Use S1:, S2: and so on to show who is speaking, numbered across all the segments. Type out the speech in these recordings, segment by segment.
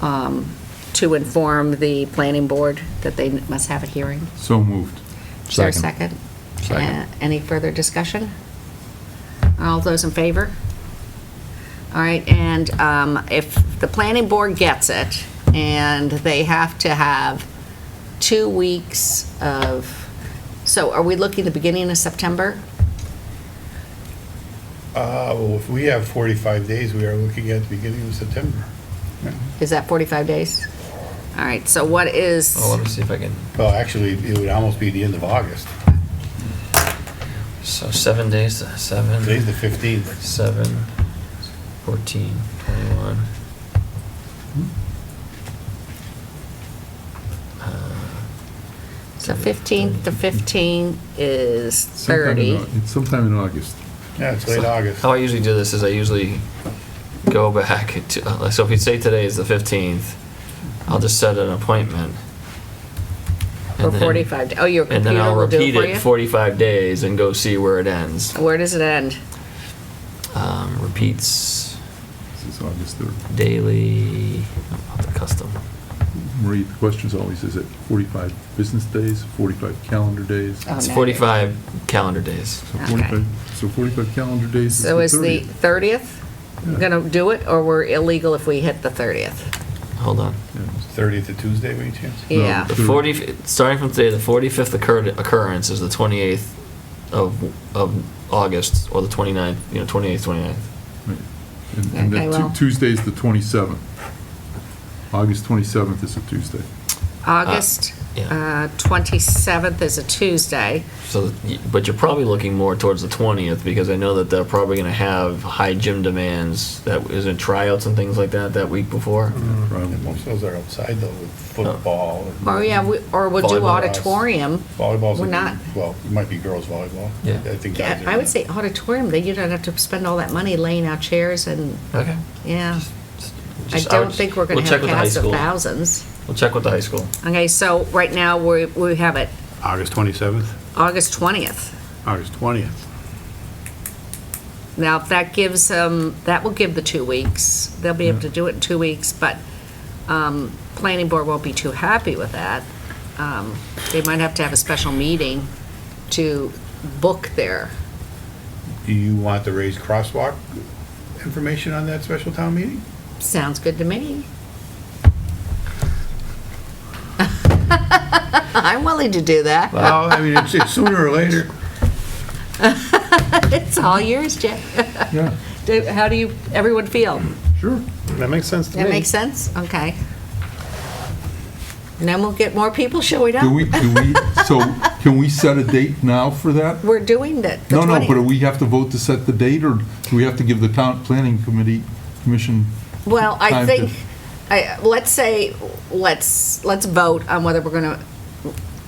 S1: um, to inform the planning board that they must have a hearing.
S2: So moved.
S1: Is there a second?
S3: Second.
S1: Uh, Any further discussion? All those in favor? All right, and um, if the planning board gets it, and they have to have two weeks of, so are we looking the beginning of September?
S4: Uh, well, if we have 45 days, we are looking at the beginning of September.
S1: Is that 45 days? All right, so what is,
S5: Oh, let me see if I can,
S4: Well, actually, it would almost be the end of August.
S5: so seven days, seven,
S4: Today's the 15th.
S5: seven, fourteen, twenty-one.
S1: so 15th to 15 is
S2: Sometime in
S1: 30.
S2: Au- It's sometime in August.
S4: Yeah, it's late August.
S5: How I usually do this is I usually go back to, uh, so if we say today is the fifteenth, I'll just set an appointment.
S1: Or
S5: and then-
S1: 45, da- oh, your
S5: And then
S1: computer
S5: I'll
S1: will do it
S5: repeat
S1: for
S5: it
S1: you?
S5: forty-five days and go see where it ends.
S1: Where does it end?
S5: Um, repeats
S2: This is August 3rd.
S5: daily, oh, the custom.
S2: Marie, the question is always, is it 45 business days, 45 calendar days?
S1: Oh,
S5: It's
S1: no.
S5: forty-five calendar days.
S2: So
S1: okay.
S2: 45, so 45 calendar days
S1: So is
S2: is the
S1: the
S2: 30th.
S1: 30th
S2: Yeah.
S1: going to do it, or we're illegal if we hit the 30th?
S5: Hold on.
S2: Yeah.
S4: 30th to Tuesday, any chance?
S2: No.
S1: Yeah,
S5: The forty, starting from today, the forty-fifth occurred, occurrence is the twenty-eighth of, of August, or the 29th, you know, twenty-eighth, twenty-ninth.
S2: Right. And- And
S1: Okay,
S2: then Tu-
S1: well-
S2: Tuesday's the 27th. August 27th is a Tuesday.
S1: August
S5: Uh, yeah.
S1: uh, 27th is a Tuesday.
S5: So, y- but you're probably looking more towards the twentieth, because I know that they're probably gonna have high gym demands, that, isn't tryouts and things like that, that week before?
S4: And Most of those are outside though, with football. and
S1: Or, yeah, we- or we'll do
S5: Volleyball.
S1: auditorium.
S4: Volleyball's,
S1: We're
S4: like-
S1: not-
S4: well, it might be girls volleyball.
S5: Yeah.
S4: I think
S1: Yeah,
S4: guys are
S1: I would
S4: not.
S1: say auditorium, then you don't have to spend all that money laying out chairs and,
S5: Okay.
S1: yeah. I
S5: Just-
S1: don't
S5: would-
S1: think we're going
S5: we'll
S1: to
S5: check
S1: have
S5: with the high
S1: cast of
S5: school.
S1: thousands.
S5: We'll check with the high school.
S1: Okay, so right now, we, we have it
S4: August 27th,
S1: August 20th.
S4: August 20th.
S1: Now, if that gives them, that will give the two weeks. They'll be able to do it in two weeks, but um, planning board won't be too happy with that. Um, They might have to have a special meeting to book their,
S4: Do you want the raised crosswalk information on that special town meeting?
S1: sounds good to me. I'm willing to do that.
S4: Well, I mean, it's it's sooner or later.
S1: It's all yours, Jeff.
S2: Yeah,
S1: Do- How do you, everyone feel?
S2: sure.
S4: That makes sense to me.
S1: That makes sense? Okay. And then we'll get more people showing
S2: Do
S1: up.
S2: we, do we, so can we set a date now for that?
S1: We're doing that. the
S2: No, no,
S1: 20th.
S2: but we have to vote to set the date, or do we have to give the town planning committee, commission?
S1: Well, I
S2: time
S1: think,
S2: to-
S1: I, let's say, let's, let's vote on whether we're going to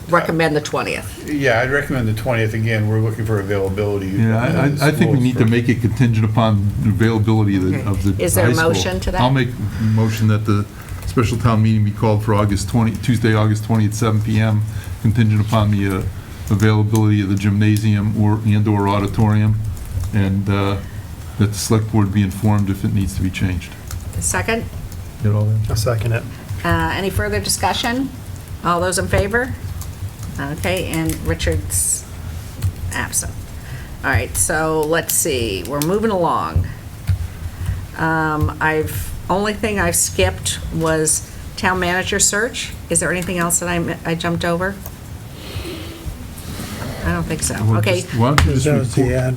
S1: recommend the 20th.
S4: Yeah, I'd recommend the 20th. Again, we're looking for availability.
S2: Yeah, I-
S4: uh,
S2: I, I think we
S4: schools
S2: need to
S4: for-
S2: make it contingent upon the availability of the
S1: Okay.
S2: of the high school.
S1: Is there a motion to that?
S2: I'll make a motion that the special town meeting be called for August 20, Tuesday, August 20th, 7 PM, contingent upon the uh, availability of the gymnasium or, and/or auditorium, and uh, that the select board be informed if it needs to be changed.
S1: Second,
S2: Get all that?
S6: I'll second it.
S1: uh, any further discussion? All those in favor? Okay, and Richard's absent. All right, so let's see, we're moving along. Um, I've, only thing I've skipped was town manager search. Is there anything else that I mi- I jumped over? I don't think so.
S2: Well,
S1: Okay,
S2: just- Why don't you
S6: That was
S2: just
S6: the
S2: report?
S6: ad.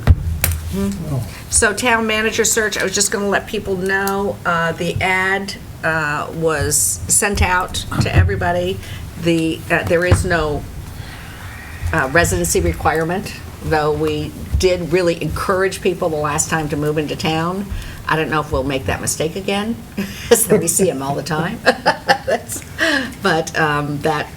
S1: So town manager search, I was just going to let people know, uh, the ad uh, was sent out to everybody. The, uh, there is no uh, residency requirement, though we did really encourage people the last time to move into town. I don't know if we'll make that mistake again, because we see them all the time. That's- But um, that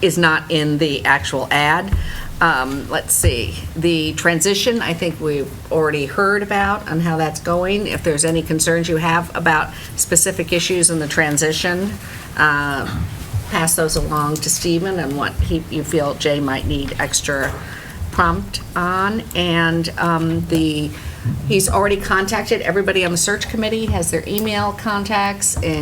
S1: is not in the actual ad. Um, Let's see, the transition, I think we've already heard about and how that's going. If there's any concerns you have about specific issues in the transition, uh, pass those along to Stephen and what he, you feel Jay might need extra prompt on. And um, the, he's already contacted, everybody on the search committee has their email contacts and